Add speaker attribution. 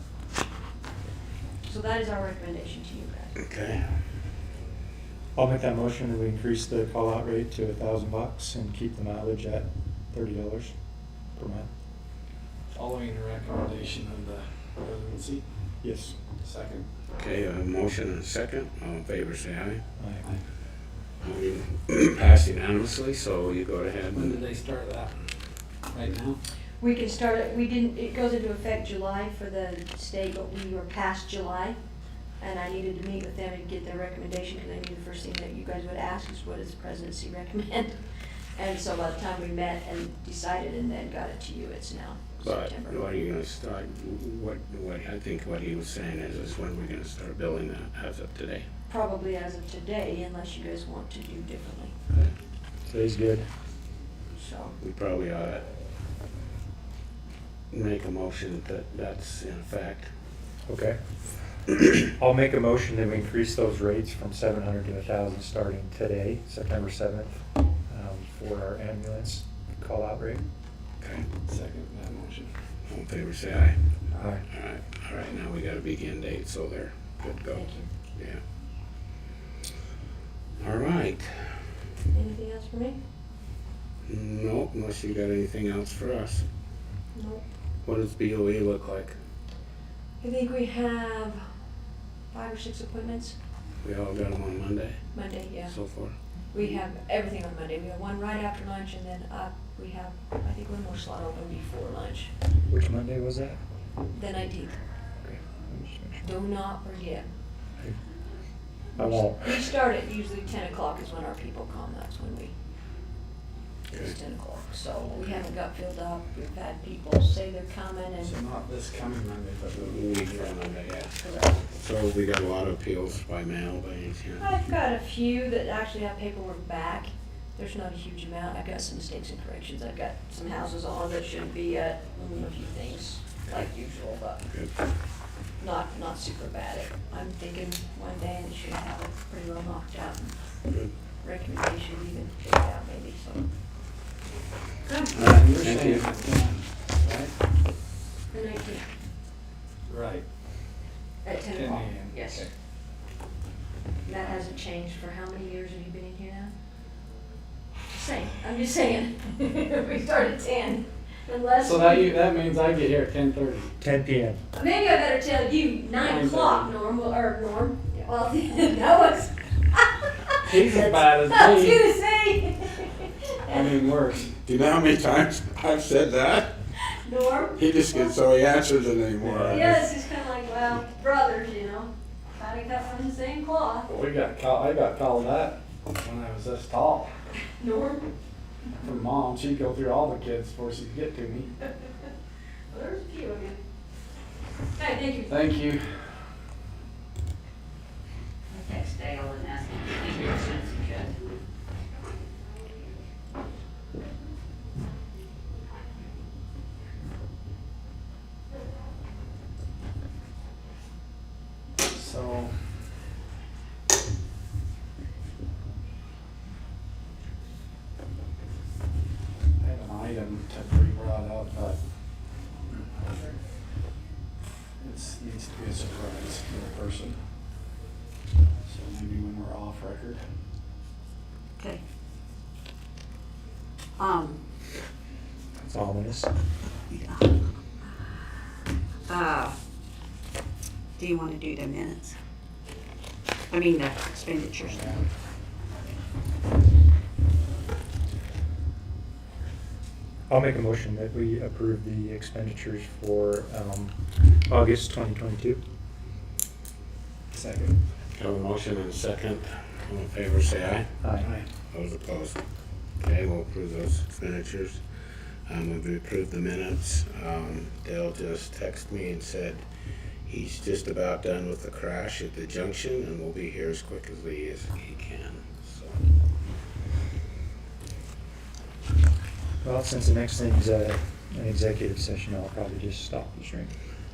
Speaker 1: So that is our recommendation to you guys.
Speaker 2: Okay.
Speaker 3: I'll make that motion and we increase the call out rate to a thousand bucks and keep the mileage at thirty dollars per mile.
Speaker 4: Following the recommendation of the presidency,
Speaker 3: Yes.
Speaker 4: second.
Speaker 2: Okay, a motion and a second. All in favor, say aye.
Speaker 3: Aye.
Speaker 2: Motion Passed unanimously, so you go ahead
Speaker 4: When did
Speaker 2: and,
Speaker 4: they start that? Right now?
Speaker 1: We can start, it. we didn't, it goes into effect July for the state, but we were past July. And I needed to meet with them and get their recommendation, because I knew the first thing that you guys would ask is what does the presidency recommend? And so by the time we met and decided and then got it to you, it's now
Speaker 2: but
Speaker 1: September.
Speaker 2: what are you gonna start, what, what, I think what he was saying is, is when we're gonna start building that as of today.
Speaker 1: Probably as of today, unless you guys want to do differently,
Speaker 3: Today's good.
Speaker 1: so.
Speaker 2: We probably ought to make a motion that that's in effect.
Speaker 3: Okay. I'll make a motion that we increase those rates from seven hundred to a thousand starting today, September seventh, um, for our ambulance call out rate.
Speaker 2: Okay,
Speaker 4: Second that motion.
Speaker 2: all in favor, say aye.
Speaker 3: Aye.
Speaker 2: All right, all right, now we got a begin date, so they're good to go.
Speaker 1: Thank you.
Speaker 2: Yeah. All right,
Speaker 1: Anything else for me?
Speaker 2: nope, unless you got anything else for us.
Speaker 1: No.
Speaker 2: What does BOE look like?
Speaker 1: I think we have five or six appointments,
Speaker 2: We all got them on Monday
Speaker 1: Monday, yeah.
Speaker 2: so far?
Speaker 1: We have everything on Monday. We have one right after lunch and then uh, we have, I think one more slot open before lunch,
Speaker 3: Which Monday was that?
Speaker 1: the 19th. Do not forget.
Speaker 3: I won't.
Speaker 1: We start at usually 10 o'clock is when our people come. That's when we,
Speaker 2: Okay.
Speaker 1: it's 10 o'clock. So we haven't got filled up. We've had people say they're coming
Speaker 4: So
Speaker 1: and.
Speaker 4: not this coming Monday, but the
Speaker 2: We
Speaker 4: week
Speaker 2: from Monday, yeah.
Speaker 1: Correct.
Speaker 2: So we got a lot of appeals by mail, by any chance?
Speaker 1: I've got a few that actually have paperwork back. There's not a huge amount. I've got some mistakes and corrections. I've got some houses on that shouldn't be at, mm, a few things like usual, but
Speaker 2: Good.
Speaker 1: not, not super bad. I'm thinking one day and should have it pretty well knocked out.
Speaker 2: Good.
Speaker 1: Recommendation even checked out maybe, so. Good.
Speaker 4: after. You're
Speaker 2: Thank
Speaker 4: saying
Speaker 2: you.
Speaker 4: it's done,
Speaker 1: The nineteenth
Speaker 4: right? Right.
Speaker 1: at ten
Speaker 4: 10
Speaker 1: o'clock.
Speaker 4: a.m.,
Speaker 1: Yes.
Speaker 4: okay.
Speaker 1: That hasn't changed for how many years have you been in here now? Just saying, I'm just saying. We start at ten, unless.
Speaker 4: So that you, that means I get here at ten thirty.
Speaker 3: Ten PM.
Speaker 1: Maybe I better tell you nine
Speaker 4: Nine
Speaker 1: o'clock,
Speaker 4: thirty.
Speaker 1: Norm, well, or Norm, well, that was.
Speaker 4: He's as bad as
Speaker 1: I was
Speaker 4: me.
Speaker 1: gonna say.
Speaker 4: I mean, worse.
Speaker 2: Do you know how many times I've said that?
Speaker 1: Norm?
Speaker 2: He just gets, so he answers it anymore.
Speaker 1: Yes, it's kinda like, well, brothers, you know, kinda cut from the same cloth.
Speaker 4: But we got called, I got called that when I was this tall
Speaker 1: Norm,
Speaker 4: from mom. She'd go through all the kids before she'd get to me.
Speaker 1: Well, there's a few of you. Hey, thank you.
Speaker 4: Thank you.
Speaker 5: text Dale and ask him if he thinks it's good.
Speaker 4: So. I have an item to be brought up, but it's, needs to be a surprise to the person. So maybe when we're off record.
Speaker 5: Okay. Um,
Speaker 3: It's ominous.
Speaker 5: uh, do you wanna do the minutes? I mean, the expenditures.
Speaker 3: I'll make a motion that we approve the expenditures for, um, August twenty twenty-two.
Speaker 4: Second.
Speaker 2: Have a motion and a second. All in favor, say aye.
Speaker 3: Aye.
Speaker 2: Those opposed? Okay, we'll approve those expenditures. Um, we approved the minutes. Um, Dale just texted me and said he's just about done with the crash at the junction and will be here as quick as he is, he can, so.
Speaker 3: Well, since the next thing is uh, an executive session, I'll probably just stop the stream.